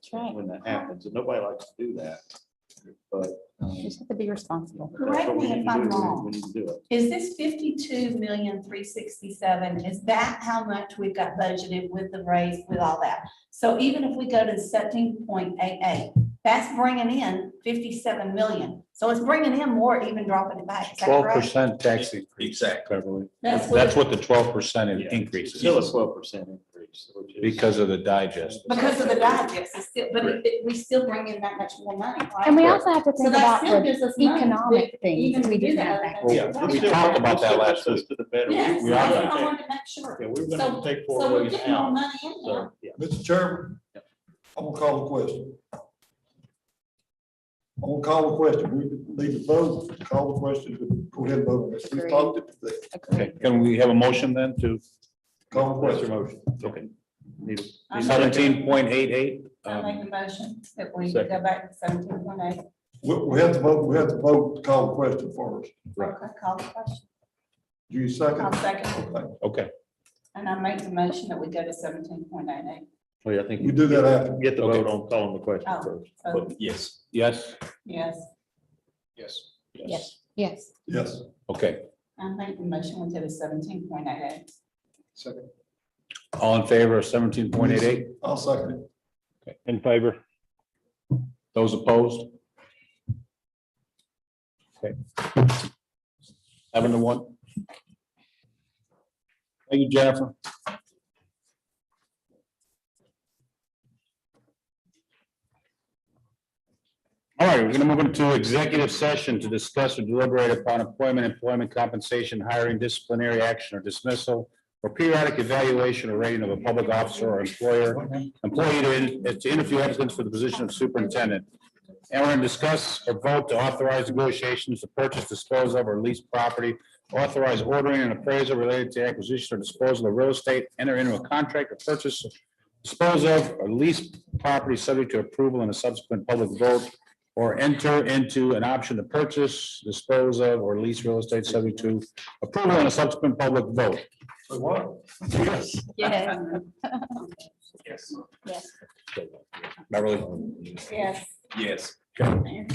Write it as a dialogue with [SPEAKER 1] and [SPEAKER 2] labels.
[SPEAKER 1] That's right.
[SPEAKER 2] when that happens, and nobody likes to do that. But. um,
[SPEAKER 1] You just have to be responsible.
[SPEAKER 2] that's what
[SPEAKER 3] Correct
[SPEAKER 2] we
[SPEAKER 3] me
[SPEAKER 2] need
[SPEAKER 3] if
[SPEAKER 2] to
[SPEAKER 3] I'm
[SPEAKER 2] do. We-
[SPEAKER 3] wrong.
[SPEAKER 2] We need to do it.
[SPEAKER 3] Is this fifty-two million, three sixty-seven, is that how much we've got budgeted with the raise, with all that? So even if we go to seventeen point eight eight, that's bringing in fifty-seven million. So it's bringing in more, even dropping it back, is that
[SPEAKER 4] Twelve
[SPEAKER 3] correct?
[SPEAKER 4] percent tax increase,
[SPEAKER 5] Exactly.
[SPEAKER 4] Beverly.
[SPEAKER 3] That's
[SPEAKER 4] That's what the twelve percent
[SPEAKER 2] Yeah.
[SPEAKER 4] increase
[SPEAKER 2] Still a
[SPEAKER 4] is,
[SPEAKER 2] twelve percent increase, which is.
[SPEAKER 4] because of the digest.
[SPEAKER 3] Because of the digest, it's still, but it- it- we still bring in that much more money, right?
[SPEAKER 1] And we also have to
[SPEAKER 3] So
[SPEAKER 1] think
[SPEAKER 3] that
[SPEAKER 1] about
[SPEAKER 3] still
[SPEAKER 1] the
[SPEAKER 3] gives us money to
[SPEAKER 1] economic things
[SPEAKER 3] Even
[SPEAKER 1] we
[SPEAKER 3] we do
[SPEAKER 1] didn't
[SPEAKER 3] that.
[SPEAKER 1] have.
[SPEAKER 3] other things.
[SPEAKER 4] Yeah, we
[SPEAKER 2] still-
[SPEAKER 4] talked about that
[SPEAKER 2] still
[SPEAKER 4] last
[SPEAKER 2] puts us To the better. We-
[SPEAKER 3] Yes,
[SPEAKER 2] we are
[SPEAKER 3] that's
[SPEAKER 2] gonna
[SPEAKER 3] what I
[SPEAKER 2] take-
[SPEAKER 3] wanted to make sure.
[SPEAKER 2] Yeah, we're
[SPEAKER 3] So,
[SPEAKER 2] gonna take four
[SPEAKER 3] so we're
[SPEAKER 2] ways
[SPEAKER 3] getting more
[SPEAKER 2] out,
[SPEAKER 3] money in there.
[SPEAKER 2] so, yeah.
[SPEAKER 6] Mr. Chairman,
[SPEAKER 2] Yep.
[SPEAKER 6] I'm gonna call the question. I'm gonna call the question. We need to vote, call the question, go ahead and vote. We talked it, today.
[SPEAKER 4] Okay, can we have a motion then to
[SPEAKER 6] call the
[SPEAKER 2] What's your
[SPEAKER 6] question.
[SPEAKER 2] motion? Okay. Need a-
[SPEAKER 3] I'm-
[SPEAKER 4] seventeen point eight eight?
[SPEAKER 3] I make a motion that we
[SPEAKER 4] second.
[SPEAKER 3] go back to seventeen point eight.
[SPEAKER 6] We, we have to vote, we have to vote, to call the question first.
[SPEAKER 4] Right.
[SPEAKER 3] Okay, call the question.
[SPEAKER 6] Do you
[SPEAKER 3] I'll
[SPEAKER 6] second?
[SPEAKER 3] second,
[SPEAKER 6] Okay.
[SPEAKER 4] Um, Okay,
[SPEAKER 3] and I make the motion that we go to seventeen point eight eight.
[SPEAKER 2] Well, I think
[SPEAKER 6] We do that after.
[SPEAKER 2] Get the
[SPEAKER 4] Okay.
[SPEAKER 2] vote on calling the question
[SPEAKER 3] Oh.
[SPEAKER 2] first.
[SPEAKER 3] So,
[SPEAKER 5] Yes.
[SPEAKER 4] yes,
[SPEAKER 3] yes,
[SPEAKER 2] Yes.
[SPEAKER 1] Yes. Yes,
[SPEAKER 6] Yes.
[SPEAKER 4] okay.
[SPEAKER 3] I make the motion we go to seventeen point eight eight.
[SPEAKER 6] Second.
[SPEAKER 4] All in favor of seventeen point eight eight?
[SPEAKER 6] I'll second it.
[SPEAKER 4] In favor. Those opposed? Okay. Seven to one. Thank you, Jennifer. All right, we're gonna move into executive session to discuss or deliberate upon employment, employment compensation, hiring, disciplinary action or dismissal, or periodic evaluation or rating of a public officer or employer, employee to, to interview applicants for the position of superintendent. And we're going to discuss or vote to authorize negotiations to purchase, dispose of, or lease property, authorize ordering and appraisal related to acquisition or disposal of real estate, enter into a contract or purchase, dispose of, or lease property subject to approval and a subsequent public vote, or enter into an option to purchase, dispose of, or lease real estate subject to approval and a subsequent public vote.
[SPEAKER 6] So what?
[SPEAKER 4] Yes.
[SPEAKER 1] yes, yes.
[SPEAKER 4] Beverly?
[SPEAKER 3] Yes.
[SPEAKER 5] Yes.